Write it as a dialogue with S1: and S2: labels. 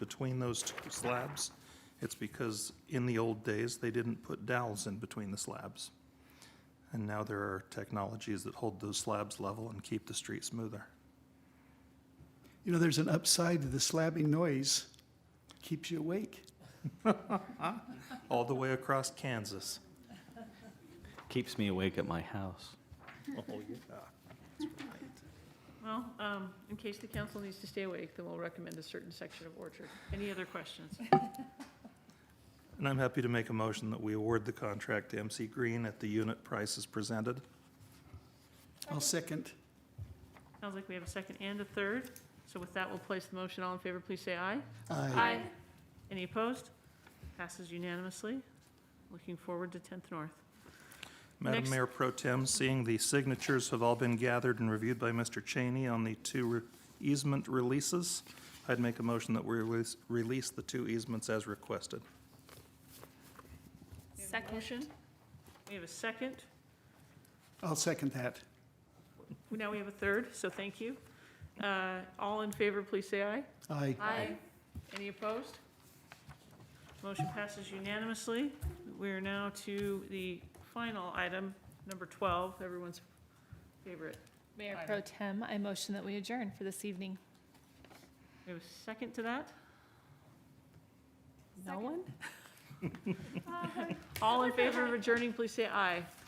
S1: between those two slabs. It's because in the old days, they didn't put dowels in between the slabs. And now there are technologies that hold those slabs level and keep the street smoother.
S2: You know, there's an upside to the slapping noise. Keeps you awake.
S1: All the way across Kansas.
S3: Keeps me awake at my house.
S1: Oh, yeah.
S4: Well, um, in case the council needs to stay awake, then we'll recommend a certain section of Orchard. Any other questions?
S1: And I'm happy to make a motion that we award the contract to MC Green at the unit prices presented.
S2: I'll second.
S4: Sounds like we have a second and a third. So with that, we'll place the motion. All in favor, please say aye.
S2: Aye.
S4: Any opposed? Passes unanimously. Looking forward to 10th North.
S1: Madam
S4: Next-
S1: Mayor Pro Tem, seeing the signatures have all been gathered and reviewed by Mr. Cheney on the two re- easement releases, I'd make a motion that we release, release the two easements as requested.
S4: We have a Motion. We have a second.
S2: I'll second that.
S4: Now we have a third, so thank you. Uh, All in favor, please say aye.
S2: Aye.
S4: Aye. Any opposed? Motion passes unanimously. We are now to the final item, number 12, everyone's favorite.
S5: Mayor
S4: Item.
S5: Pro Tem, I motion that we adjourn for this evening.
S4: We have a second to that?
S5: No one?
S4: All in favor of adjourning, please say aye.